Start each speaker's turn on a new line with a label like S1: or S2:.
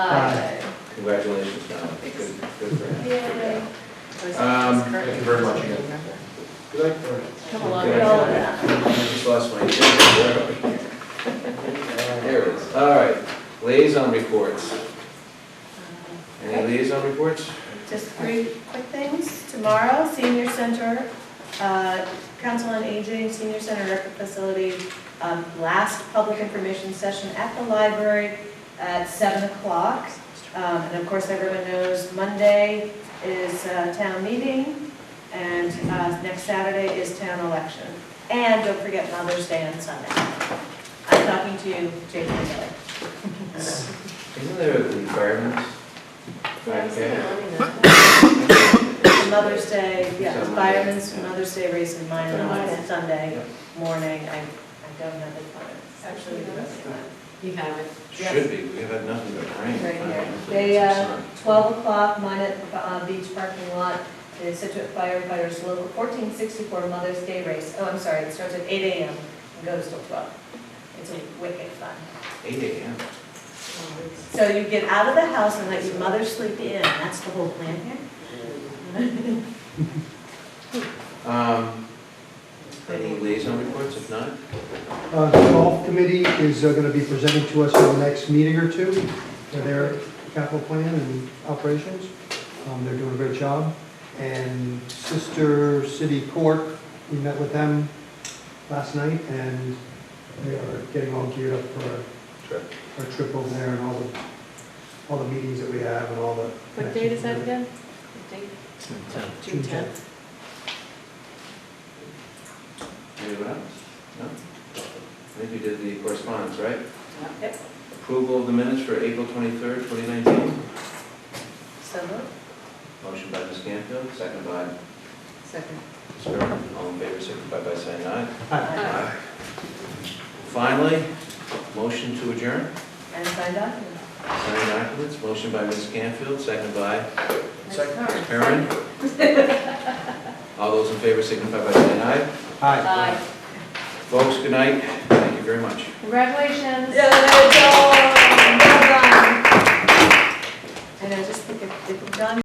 S1: Aye.
S2: Congratulations, Don. Good, good for him.
S1: Yay.
S2: Um,
S3: Thank you very much again.
S1: Come along.
S2: Good. I just lost my, where are we? there it is. All right, liaison reports.
S1: Uh,
S2: Any liaison reports?
S1: Just three quick things. Tomorrow, senior center, uh, council on aging, senior center record facility, um, last public information session at the library at seven o'clock. Um, And of course, everyone knows Monday is uh, town meeting and uh, next Saturday is town election. And don't forget Mother's Day on Sunday. I'm talking to you, Jake Miller.
S2: Isn't there an environment? Okay.
S1: The Mother's Day, yeah,
S2: Is that
S1: firemen's
S2: Monday?
S1: Mother's Day race in mine
S2: Yeah.
S1: on Sunday morning. I, I don't have it planned. Actually, the best time.
S3: You have it.
S2: Should be, we have had nothing but rain.
S1: Right here. They, uh, Twelve o'clock, mine at uh, beach parking lot, the Situate firefighters local fourteen sixty-four Mother's Day race. Oh, I'm sorry, it starts at eight AM and goes till twelve. It's a wicked fun.
S2: Eight AM.
S1: So you get out of the house and let your mother sleep in. That's the whole plan here.
S2: Um, Any liaison reports, if not?
S4: Uh, The golf committee is going to be presenting to us in the next meeting or two for their capital plan and operations. Um, They're doing a great job. And Sister City Court, we met with them last night, and they are getting all geared up for our-
S2: Sure.
S4: our trip over there and all the, all the meetings that we have and all the.
S3: What date is that
S4: connections.
S3: again? The date? June tenth.
S2: Anyone else? No? I think we did the correspondence, right?
S1: Yep.
S2: Approval of the minutes for April 23rd, 2019.
S1: So moved.
S2: Motion by Ms. Canfield, second by Ms.
S3: Second.
S2: Gerber. All in favor, signify by saying aye.
S4: Hi.
S1: Uh,
S2: Aye. Finally, motion to adjourn.
S1: And signed documents.
S2: Signed documents, motion by Ms. Canfield, second by
S3: Second.
S2: Karen. All those in favor, signify by saying aye.
S4: Hi.
S3: Aye.
S2: Folks, good night. Thank you very much.
S3: Congratulations.
S1: uh, Well done. And I just think if, if John